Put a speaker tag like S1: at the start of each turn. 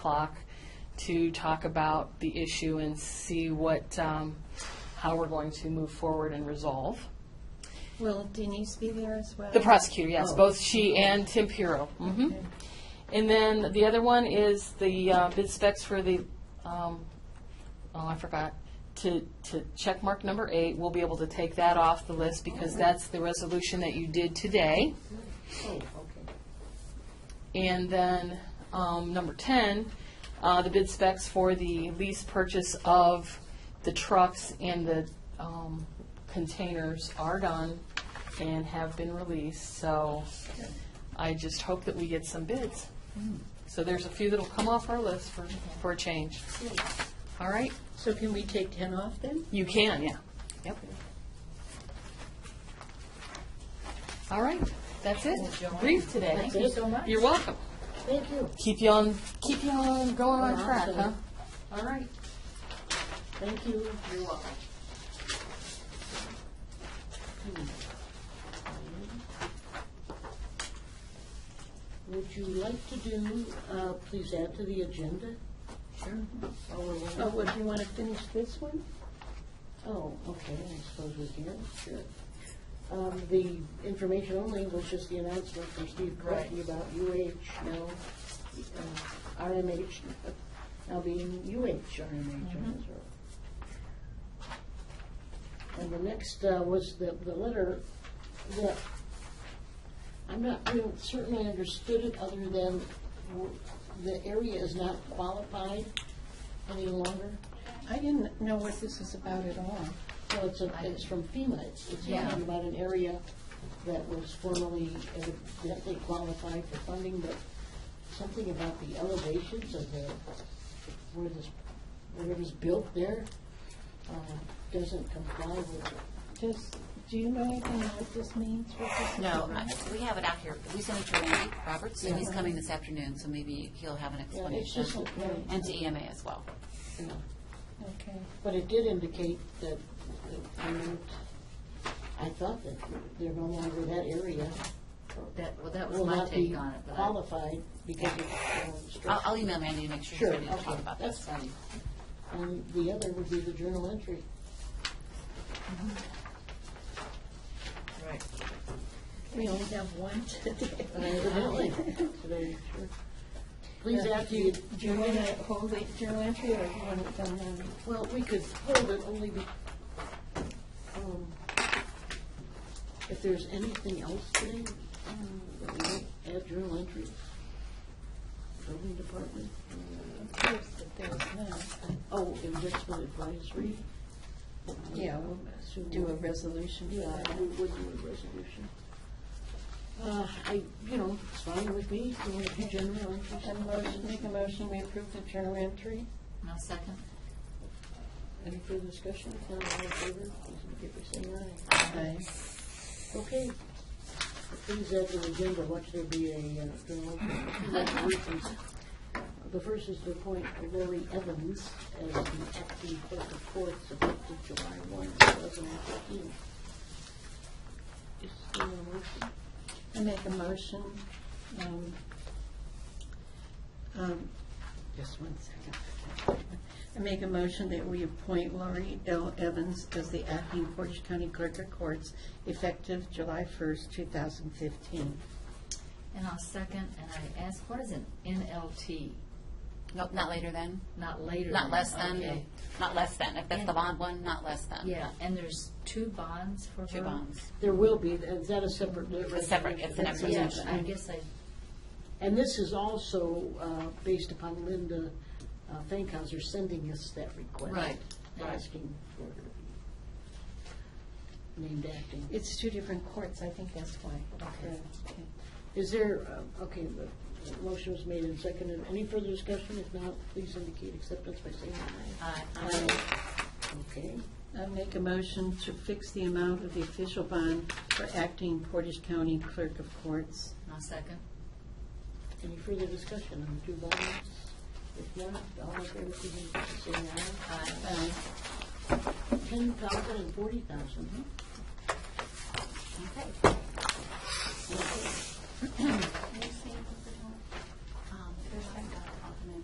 S1: o'clock to talk about the issue and see what, um, how we're going to move forward and resolve.
S2: Will Denise be there as well?
S1: The prosecutor, yes, both she and Tim Puro. Mhm. And then the other one is the uh, bid specs for the, um, oh, I forgot, to, to check mark number eight, we'll be able to take that off the list because that's the resolution that you did today.
S2: Oh, okay.
S1: And then, um, number ten, uh, the bid specs for the lease purchase of the trucks and the, um, containers are done and have been released, so I just hope that we get some bids.
S2: Hmm.
S1: So there's a few that'll come off our list for, for a change. All right?
S2: So can we take 10 off then?
S1: You can, yeah. Yep. All right, that's it. Brief today.
S2: Thank you so much.
S1: You're welcome
S2: Thank you.
S1: keep you on, keep you on going on
S2: Well,
S1: track, huh?
S2: absolutely.
S1: All right.
S2: Thank you. You're welcome. Hmm. Would you like to do, uh, please add to the agenda? Sure.
S3: Oh, would you want to finish this one?
S2: Oh, okay, I suppose we can, sure. Um, The information only was just the announcement from Steve Corky about UH now, uh, RMH now being UH RMH.
S3: Mm-hmm.
S2: I'm sorry. And the next uh, was the, the letter that, I'm not, I don't certainly understood it other than w- the area is not qualified any longer.
S3: I didn't know what this was about at all.
S2: Well, it's, a- it's from FEMA, it's it's talking about an area that was formerly evidently qualified for funding, but something about the elevations of the, where this, whatever's built there, uh, doesn't comply with,
S3: Just, do you know anything what this means? What this is
S4: No,
S3: about?
S4: I- we have it out here. We sent it to Randy Roberts, and he's coming this afternoon, so maybe he'll have an
S2: yeah, it's
S4: explanation.
S2: just, a-
S4: And to EMA as well.
S2: you know,
S3: Okay.
S2: but it did indicate that, that they moved- I thought that they're no longer that area,
S4: That, well, that
S2: will not be qualified because of. uh, structure.
S4: I'll, I'll email Randy to make sure he's
S2: Sure,
S4: ready to talk
S2: okay,
S4: about
S2: that's
S4: this.
S2: fine. And the other would be the journal entry.
S4: Right.
S3: We only have one today.
S2: And evidently, today, sure. Please add
S3: Do
S2: to
S3: you,
S2: you,
S3: do you want to hold it journal entry or do you want it done on?
S2: well, we could hold it only be, um, if there's anything else today, um, that we might add journal entry. Building department. uh,
S3: Of course, but there's none.
S2: Oh, investment advisory.
S3: Yeah, we'll
S2: Assume-
S3: Do a resolution for
S2: Yeah,
S3: that.
S2: we would do a resolution. Uh, I, you know, it's fine with me, you want to do general interest?
S3: And motion, make a motion, we approve the journal entry?
S4: No second?
S2: Any further discussion? If not, all in favor, please indicate by saying
S3: Aye.
S2: aye. Okay. Please add to the agenda, watch there be a, uh, journal entry. Congratulations. The first is to appoint Lori Evans as the acting clerk of courts effective July one, two thousand and fifteen. Is there a motion?
S3: I make a motion, um, um, just one second. I make a motion that we appoint Laurie L. Evans as the acting Portage County Clerk of Courts effective July 1st, 2015.
S5: And I'll second, and I ask, what is an NLT?
S4: Nope, not later than,
S5: Not later?
S4: not less than,
S5: Okay.
S4: not less than. If that's the bond one, not less than.
S5: Yeah, and there's two bonds for her?
S4: Two bonds.
S2: There will be, is that a separate?
S4: It's separate, it's an
S2: That's-
S4: Yeah,
S5: Yeah,
S4: but
S5: I guess I,
S2: And this is also uh, based upon Linda uh, Fankhauser sending us that request.
S5: Right, right.
S2: Asking for her to be named acting.
S3: It's two different courts, I think that's why.
S2: Okay. Is there, uh, okay, the motion was made and seconded. Any further discussion? If not, please indicate acceptance by saying aye.
S5: I,
S2: Okay.
S3: I make a motion to fix the amount of the official bond for acting Portage County Clerk of Courts.
S5: I'll second.
S2: Any further discussion on the two bodies? If not, all in favor, please indicate by saying aye.
S3: Aye.
S2: Ten thousand and forty thousand, huh?
S4: Okay.